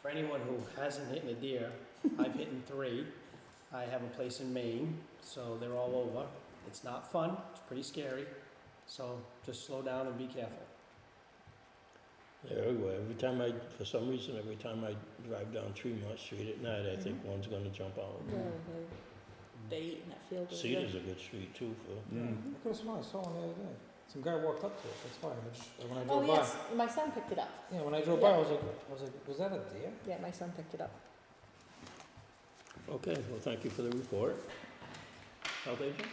for anyone who hasn't hit a deer, I've hit three. I have a place in Maine, so they're all over. It's not fun, it's pretty scary, so just slow down and be careful. Yeah, everywhere. Every time I, for some reason, every time I drive down Tremont Street at night, I think one's gonna jump out. Mm-hmm. They eating that field. over there. Cedar's a good street too for, Mm. Mm. I could have sworn I saw one the other day. Some guy walked up to it, that's why, I just, when I Oh, drove by. yes, my son picked it up. Yeah, when I drove by, I was like, I was like, was that a deer? Yeah, my son picked it up. okay, well, thank you for the report. Health agent?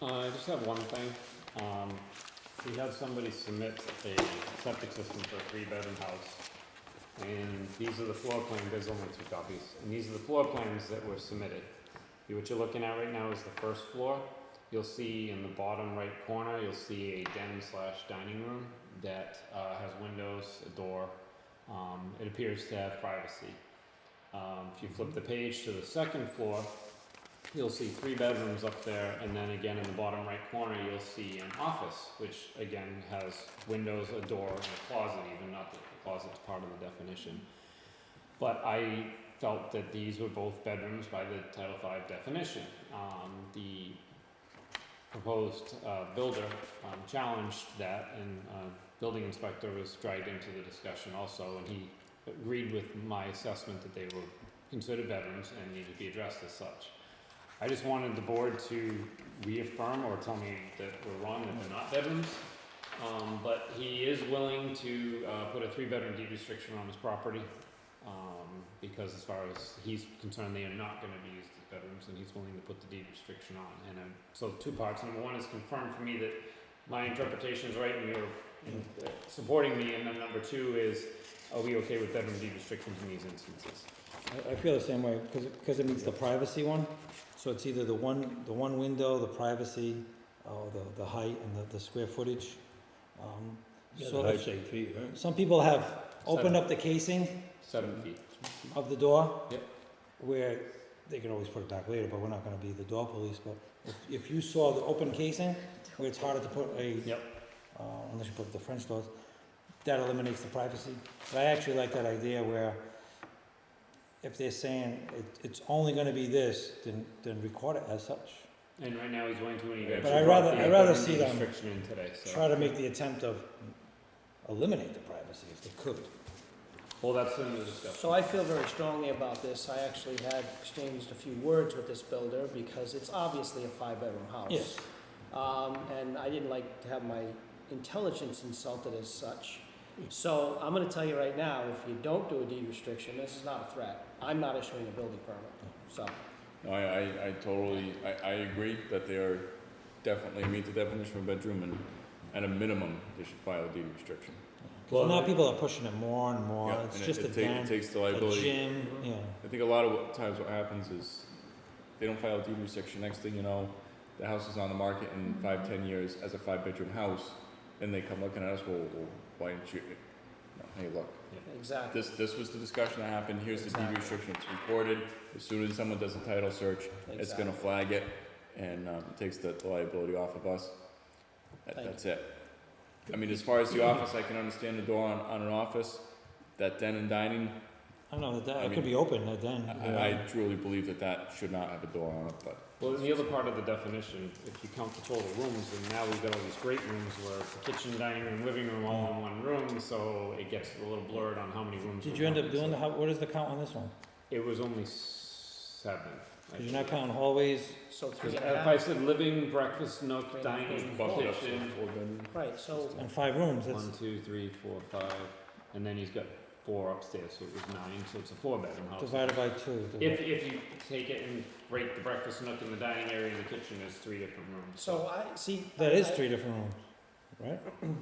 Uh, I just have one thing. Um, we had somebody submit a septic system for a three-bedroom house. And these are the floor plan, there's only two copies, and these are the floor plans that were submitted. What you're looking at right now is the first floor. You'll see in the bottom right corner, you'll see a den slash dining room that, uh, has windows, a door. Um, it appears to have privacy. Um, if you flip the page to the second floor, you'll see three bedrooms up there, and then again in the bottom right corner, you'll see an office, which again has windows, a door, and a closet, even not that the closet's part of the definition. But I felt that these were both bedrooms by the Title V definition. Um, the proposed uh, builder um, challenged that, and uh, building inspector was dragged into the discussion also, and he agreed with my assessment that they were considered bedrooms and needed to be addressed as such. I just wanted the board to reaffirm or tell me that we're wrong, that they're not bedrooms. Um, but he is willing to, uh, put a three-bedroom deed restriction on his property. Um, because as far as he's concerned, they are not gonna be used as bedrooms and he's willing to put the deed restriction on. And, uh, so two parts. Number one is confirm for me that my interpretation is right and you're uh, supporting me. And then number two is, are we okay with bedroom deed restrictions in these instances? I, I feel the same way, cause it, cause it meets the privacy one, so it's either the one, the one window, the privacy, or the, the height and the, the square footage. Um, Yeah, so the if- height's eight feet, right? some people have opened up the casing Seven feet. of the door. Yep. Where, they can always put it back later, but we're not gonna be the door police, but if, if you saw the open casing, where it's harder to put a. Yep. Uh, unless you put the French doors, that eliminates the privacy. But I actually like that idea where if they're saying it, it's only gonna be this, then, then record it as such. And right now he's willing to, and he But actually I'd brought rather- the I'd rather bedroom see deed them Restriction in today, so. Try to make the attempt of eliminate the privacy if they could. Well, that's in the discussion. So I feel very strongly about this. I actually had exchanged a few words with this builder because it's obviously a five-bedroom house. Yes, Um, and I didn't like to have my intelligence insulted as such. So I'm gonna tell you right now, if you don't do a deed restriction, this is not a threat. I'm not issuing a building permit, so. I, I, I totally, I, I agree that they are definitely meet the definition of a bedroom and at a minimum, they should file a deed restriction. 'Cause now uh, people are pushing it more and more, Yeah, it's and it- just a it take- It den, takes the a liability. gym, yeah. I think a lot of what- times what happens is they don't file a deed restriction, next thing you know, the house is on the market in Mm-hmm. five, ten years as a five-bedroom house, and they come looking at us, well, well, why didn't you, no, hey, look, Exactly. this, this was the discussion that happened, here's the deed Exactly. restriction, it's recorded, as soon as someone does a title search, it's gonna Exactly. flag it, and, um, takes the liability off of us. That, Thank that's it. I mean, as far as the office, I can understand the door on, on an office, that den and dining, I don't know, that, I it could mean, be open, a den. I, I truly believe that that should not have a door on it, but. Well, in the other part of the definition, if you count the total rooms, and now we've got all these great rooms where it's the kitchen, dining room, living room all in one room, so it gets a little blurred on how many rooms. Did we're you end up counting, doing, so- the how, what is the count on this one? It was only seven. I Cause you're not think. counting hallways, So three 'Cause and a If I half, said living, breakfast, nook, dining, Bump it up to kitchen, four bedroom. right, so and five rooms, that's, one, two, three, four, five, and then he's got four upstairs, so it was nine, so it's a four-bedroom house. divided by two. the- If, if you take it and break the breakfast nook and the dining area and the kitchen, there's three different rooms. So I, see. That is I- three different rooms, right?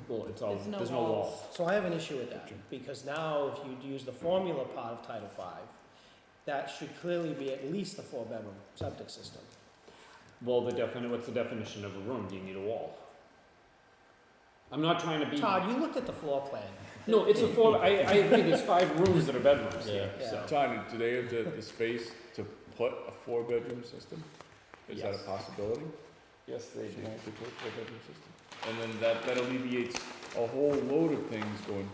Well, it's all, There's no there's no walls. walls. So I have an issue with that, because now if you use the formula part of Title V, that should clearly be at least a four-bedroom septic system. Well, the defini- what's the definition of a room? Do you need a wall? I'm not trying to be. Todd, you looked at the floor plan. No, it's a four, I, I agree, there's five rooms that are bedrooms here, Yeah. so. Todd, do they have the, the space to put a four-bedroom system? Is that a Yes. possibility? Yes, they And then that, that alleviates a whole load of things going